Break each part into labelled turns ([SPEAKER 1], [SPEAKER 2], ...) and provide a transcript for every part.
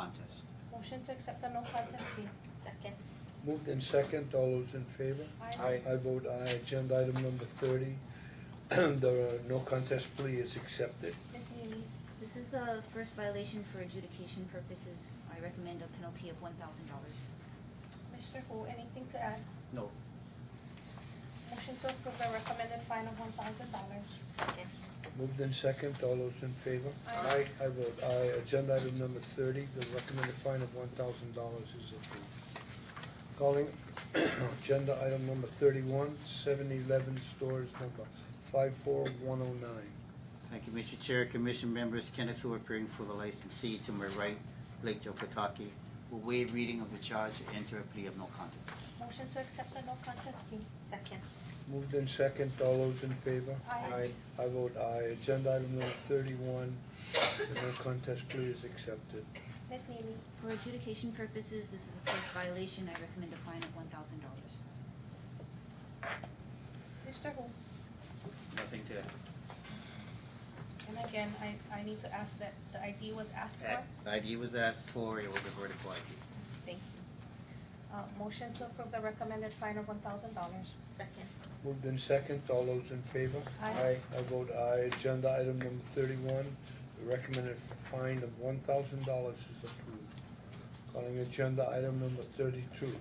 [SPEAKER 1] contest.
[SPEAKER 2] Motion to accept the no contest plea.
[SPEAKER 3] Second.
[SPEAKER 4] Moved in second, all those in favor?
[SPEAKER 2] Aye.
[SPEAKER 4] I vote aye, agenda item number thirty, the uh, no contest plea is accepted.
[SPEAKER 2] Ms. Neely,
[SPEAKER 5] This is a first violation for adjudication purposes. I recommend a penalty of one thousand dollars.
[SPEAKER 2] Mr. Hu, anything to add?
[SPEAKER 1] No.
[SPEAKER 2] Motion to approve the recommended fine of one thousand dollars.
[SPEAKER 3] Second.
[SPEAKER 4] Moved in second, all those in favor?
[SPEAKER 2] Aye.
[SPEAKER 4] I vote aye, agenda item number thirty, the recommended fine of one thousand dollars is approved. Calling agenda item number thirty-one, seven eleven stores number five four one oh nine.
[SPEAKER 1] Thank you, Mr. Chair, Commission members, Kenneth Wu appearing for the licensee to my right, Blake Joe Pataki, will waive reading of the charge and enter a plea of no contest.
[SPEAKER 2] Motion to accept the no contest plea.
[SPEAKER 3] Second.
[SPEAKER 4] Moved in second, all those in favor?
[SPEAKER 2] Aye.
[SPEAKER 4] I vote aye, agenda item number thirty-one, the no contest plea is accepted.
[SPEAKER 2] Ms. Neely,
[SPEAKER 5] For adjudication purposes, this is a first violation. I recommend a fine of one thousand dollars.
[SPEAKER 2] Mr. Hu,
[SPEAKER 1] Nothing to
[SPEAKER 2] and again, I, I need to ask that the ID was asked for.
[SPEAKER 1] add. ID was asked for, it was a vertical ID.
[SPEAKER 2] Thank you. Uh, motion to approve the recommended fine of one thousand dollars.
[SPEAKER 3] Second.
[SPEAKER 4] Moved in second, all those in favor?
[SPEAKER 2] Aye.
[SPEAKER 4] I vote aye, agenda item number thirty-one, the recommended fine of one thousand dollars is approved. Calling agenda item number thirty-two,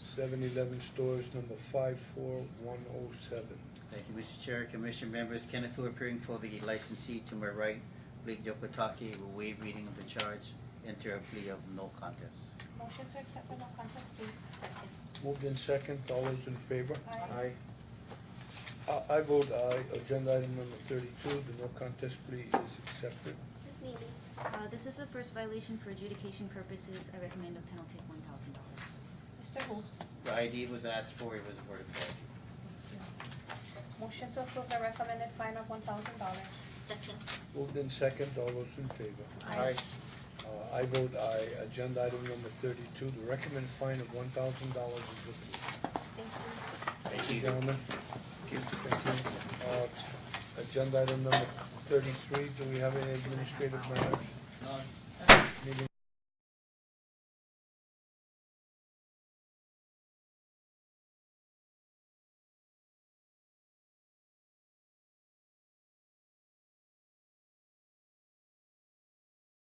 [SPEAKER 4] seven eleven stores number five four one oh seven.
[SPEAKER 1] Thank you, Mr. Chair, Commission members, Kenneth Wu appearing for the licensee to my right, Blake Joe Pataki, will waive reading of the charge, enter a plea of no contest.
[SPEAKER 2] Motion to accept the no contest plea.
[SPEAKER 3] Second.
[SPEAKER 4] Moved in second, all those in favor? Uh,
[SPEAKER 2] Aye.
[SPEAKER 4] I, I vote aye, agenda item number thirty-two, the no contest plea is accepted.
[SPEAKER 2] Ms. Neely,
[SPEAKER 5] Uh, this is a first violation for adjudication purposes. I recommend a penalty of one thousand dollars.
[SPEAKER 2] Mr. Wu.
[SPEAKER 1] The ID was asked for, it was a vertical ID.
[SPEAKER 2] Motion to approve the recommended fine of one thousand dollars.
[SPEAKER 3] Second.
[SPEAKER 4] Moved in second, all those in favor?
[SPEAKER 2] Aye.
[SPEAKER 4] Uh, I vote aye, agenda item number thirty-two, the recommended fine of one thousand dollars is approved.
[SPEAKER 2] Thank you.
[SPEAKER 1] Thank you.
[SPEAKER 4] Gentlemen, thank you. Uh, agenda item number thirty-three, do we have any administrative matters?
[SPEAKER 1] No,